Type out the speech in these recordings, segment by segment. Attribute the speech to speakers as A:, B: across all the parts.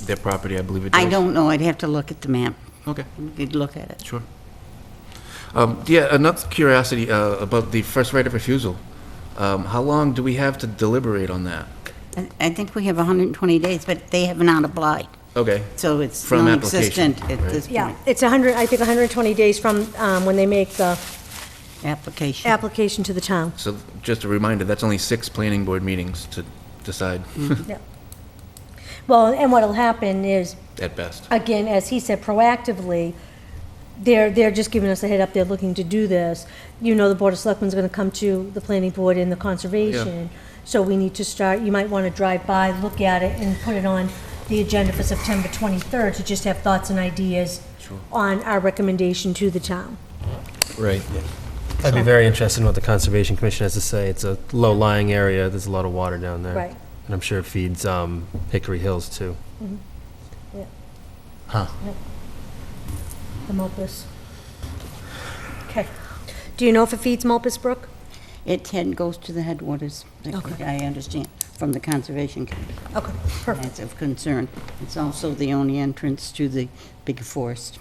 A: their property, I believe it does?
B: I don't know, I'd have to look at the map,
A: Okay.
B: good look at it.
A: Sure. Um, Yeah, another curiosity uh, about the first right of refusal. Um, How long do we have to deliberate on that?
B: I- I think we have 120 days, but they have not applied,
A: Okay,
B: so it's
A: From application,
B: non-existent at this
C: Yeah,
B: point,
C: it's 100, I think 120 days from um, when they make the
B: application.
C: application to the town.
A: so just a reminder, that's only six planning board meetings to decide
B: Hmm.
C: Well, and what'll happen is,
A: at best.
C: again, as he said, proactively, they're, they're just giving us a head up, they're looking to do this. You know, the Board of Selectmen's going to come to the planning board and the conservation. So we need to start, you might want to drive by, look at it, and put it on the agenda for September 23rd to just have thoughts and ideas on our recommendation to the town.
D: Right. I'd be very interested in what the Conservation Commission has to say. It's a low-lying area, there's a lot of water down there.
C: Right.
D: And I'm sure it feeds um, Hickory Hills, too.
C: The Mulpus. Okay. Do you know if it feeds Mulpus Brook?
B: It ten goes to the headwaters, I think
C: Okay.
B: I understand, from the Conservation Commission.
C: Okay, perfect.
B: That's of concern. It's also the only entrance to the big forest,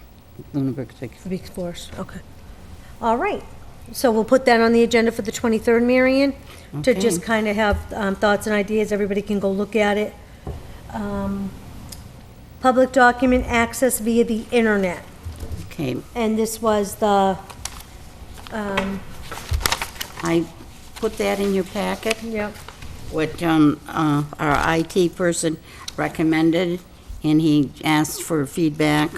B: Lunenburg's big
C: For Beach Forest, okay. All right. So we'll put that on the agenda for the 23rd, Marion, to just
B: Okay.
C: kind of have um, thoughts and ideas. Everybody can go look at it. Um, Public document access via the internet.
B: Okay,
C: And this was the, um,
B: I put that in your packet,
C: yep,
B: what um, uh, our IT person recommended, and he asked for feedback.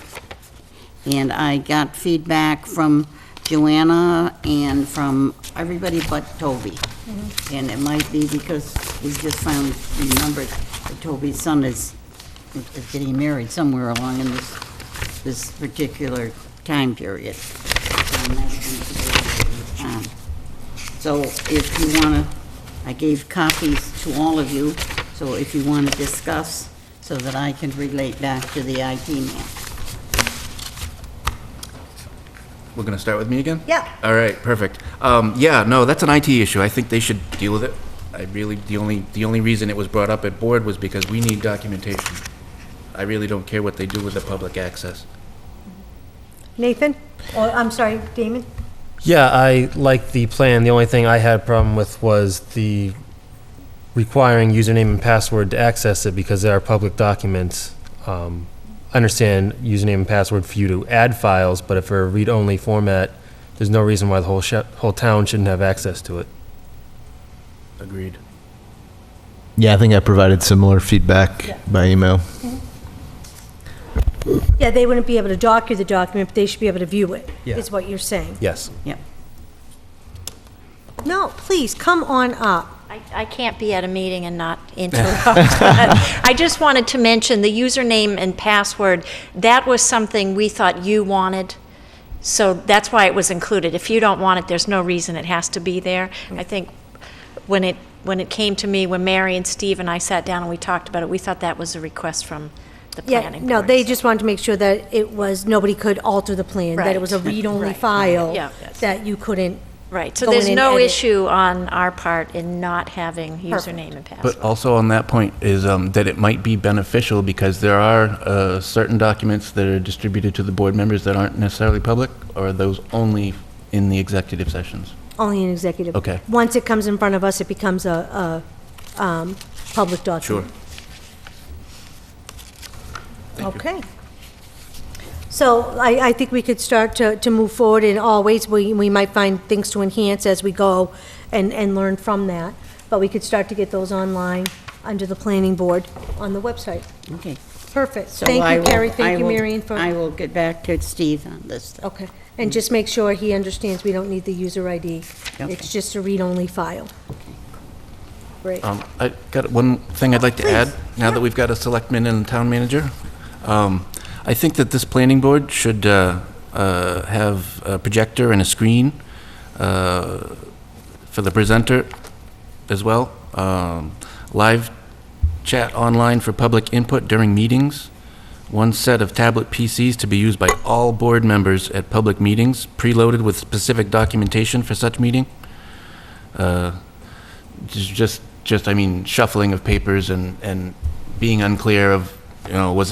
B: And I got feedback from Joanna and from everybody but Toby. And it might be because we just found, remembered that Toby's son is is getting married somewhere along in this, this particular time period. And that's when it was, um, so if you want to, I gave copies to all of you, so if you want to discuss, so that I can relate back to the IT man.
A: We're going to start with me again?
C: Yeah.
A: All right, perfect. Um, Yeah, no, that's an IT issue. I think they should deal with it. I really, the only, the only reason it was brought up at board was because we need documentation. I really don't care what they do with the public access.
C: Nathan? Or, Oh, I'm sorry, Damon?
D: Yeah, I like the plan. The only thing I had a problem with was the requiring username and password to access it because they are public documents. Um, I understand username and password for you to add files, but if they're a read-only format, there's no reason why the whole, sh- whole town shouldn't have access to it.
A: Agreed.
E: Yeah, I think I provided similar feedback by email.
C: Yeah, they wouldn't be able to docu the document, but they should be able to view it,
D: Yeah.
C: is what you're saying.
D: Yes.
B: Yep.
C: No, please, come on up.
F: I I can't be at a meeting and not interrupt. I just wanted to mention the username and password, that was something we thought you wanted, so that's why it was included. If you don't want it, there's no reason it has to be there. I think when it, when it came to me, when Mary and Steve and I sat down and we talked about it, we thought that was a request from the
C: Yeah,
F: planning board.
C: no, they just wanted to make sure that it was, nobody could alter the plan, that it was a
F: Right.
C: read-only
F: Right.
C: file.
F: Yeah, yes.
C: That you couldn't.
F: Right, so
C: go in
F: there's
C: and
F: no
C: edit.
F: issue on our part in not having username and password.
A: But also on that point is um, that it might be beneficial because there are uh, certain documents that are distributed to the board members that aren't necessarily public, or are those only in the executive sessions?
C: Only an executive.
A: Okay.
C: Once it comes in front of us, it becomes a, a, um, public document. Okay. So I, I think we could start to, to move forward in all ways. We, we might find things to enhance as we go and, and learn from that. But we could start to get those online under the planning board on the website.
B: Okay.
C: Perfect.
B: So
C: Thank
B: I
C: you,
B: will-
C: Carrie.
B: I
C: Thank you,
B: will-
C: Marion, for.
B: I will get back to Steve on this.
C: Okay, and just make sure he understands we don't need the user ID.
B: Okay.
C: It's just a read-only file. Great.
A: Um, I got one thing I'd like to add,
C: Please,
A: now that we've got a selectman and a town manager. Um, I think that this planning board should uh, uh, have a projector and a screen uh, for the presenter as well. Um, Live chat online for public input during meetings. One set of tablet PCs to be used by all board members at public meetings, preloaded with specific documentation for such meeting just, just, I mean, shuffling of papers and, and being unclear of, you know, was it